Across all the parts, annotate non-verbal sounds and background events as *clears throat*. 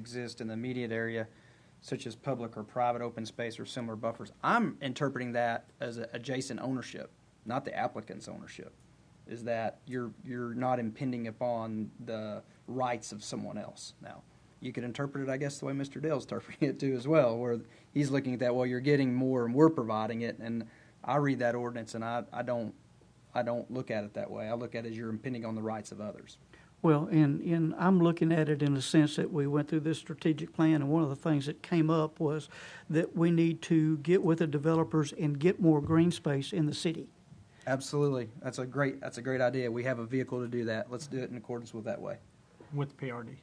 exist in the immediate area, such as public or private open space or similar buffers. I'm interpreting that as a- adjacent ownership, not the applicant's ownership. Is that you're, you're not impending upon the rights of someone else now. You could interpret it, I guess, the way Mr. Dale's interpreting it too as well, where he's looking at that, well, you're getting more and we're providing it. And I read that ordinance and I, I don't, I don't look at it that way. I look at it as you're impending on the rights of others. Well, and, and I'm looking at it in the sense that we went through this strategic plan, and one of the things that came up was that we need to get with the developers and get more green space in the city. Absolutely. That's a great that's a great idea. We have a vehicle to do that. Let's do it in accordance with that way. with PRD.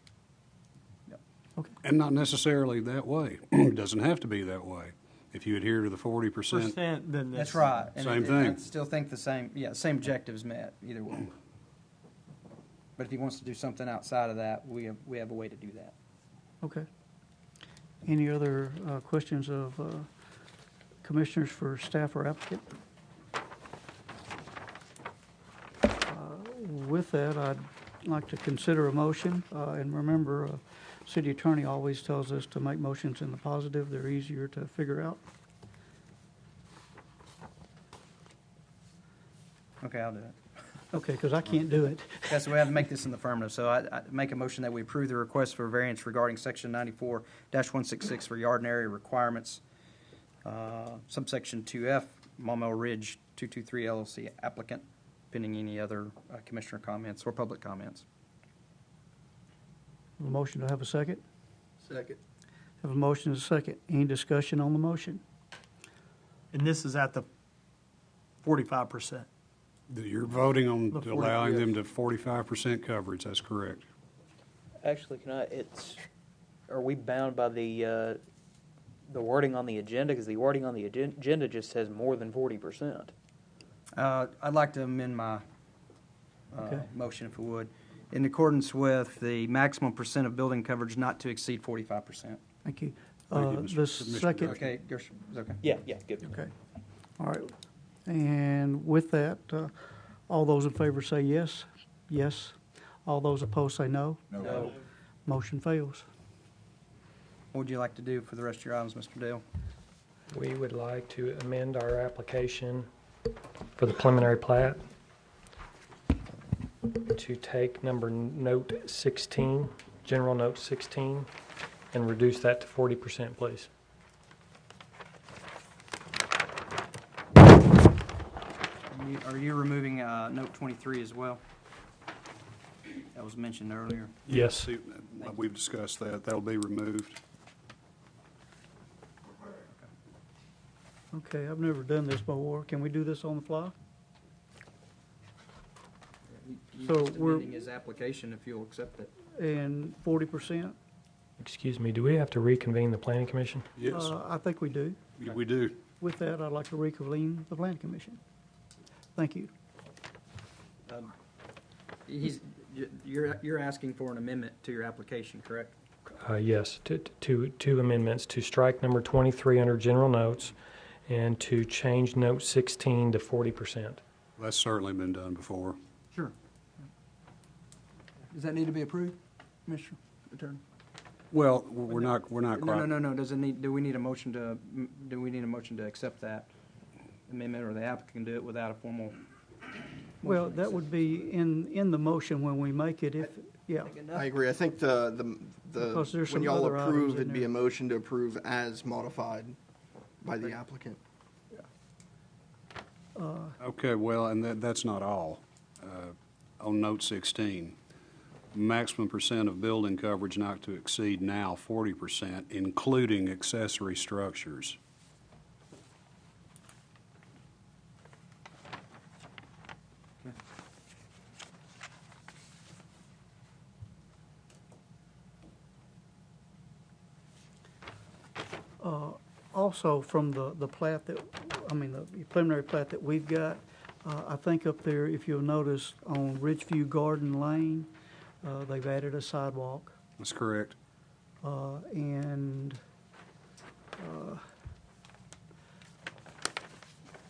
And not necessarily that way. *clears throat* It doesn't have to be that way. If you adhere to the forty percent, Percent, then this. That's right. And Same it- I thing. still think the same yeah, same objectives met either way. But if he wants to do something outside of that, we have we have a way to do that. Okay. Any other uh, questions of uh, commissioners for staff or applicant? Uh, With that, I'd like to consider a motion, uh, and remember, uh, city attorney always tells us to make motions in the positive, they're easier to figure out. Okay, I'll do it. Okay, because I can't do it. *laughs* That's the way I have to make this in the affirmative. So I, I make a motion that we approve the request for variance regarding section ninety four one six six for yard and area requirements. Uh, subsection two F, Maumelle Ridge two two three LLC applicant, pending any other uh, commissioner comments or public comments. A motion to have a second? Second. Have a motion and a second. Any discussion on the motion? And this is at the forty-five percent. that you're voting The on 40, allowing yeah. them to forty-five percent coverage, that's correct. Actually, can I, it's, are we bound by the, uh, the wording on the agenda? Because the wording on the agen- agenda just says more than forty percent. Uh, I'd like to amend my uh, Okay. motion, if we would, in accordance with the maximum percent of building coverage not to exceed 45%. Thank you. Thank you, Uh, Mr. The Commissioner. second, Okay, Gershon, is okay? Yeah, yeah, good. Okay, all right. And with that, uh, all those in favor say yes, yes. All those opposed say no. No. Motion fails. What would you like to do for the rest of your items, Mr. Dale? We would like to amend our application for the preliminary plat to take number note 16, general note 16, and reduce that to 40%, please. Are you- Are you removing uh, note 23 as well? That was mentioned earlier. Yes. See, We've discussed that, that'll be removed. Okay, I've never done this before. Can we do this on the fly? So Just we're- amending his application, if you'll accept it. And forty percent? Excuse me, do we have to reconvene the planning commission? Yes, Uh, I think we do. Uh, we do. With that, I'd like to reconvene the planning commission. Thank you. He's, you- you're, you're asking for an amendment to your application, correct? Uh, Yes, to- to- to- two amendments, to strike number 23 under general notes and to change note 16 to 40%. That's certainly been done before. Sure. Does that need to be approved, Mr. Attorney? Well, we're not, we're not No, no, quite, no, no, does it need, do we need a motion to, do we need a motion to accept that amendment, or the applicant can do it without a formal? Well, that would be in, in the motion when we make it if, yeah. I agree. I think the, the, Because the, there's when some y'all other items approve, in it'd be there. a motion to approve as modified by the applicant. okay, well, and that, that's not all. Uh, On note sixteen, maximum percent of building coverage not to exceed now forty percent, including accessory structures. Also, from the, the plat that, I mean, the preliminary plat that we've got, uh, I think up there, if you'll notice, on Ridgeview Garden Lane, uh, they've added a sidewalk. That's correct. Uh, and, uh,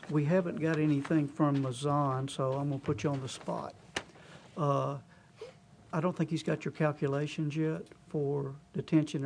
we haven't got anything from Mazan, so I'm gonna put you on the spot. Uh, I don't think he's got your calculations yet for detention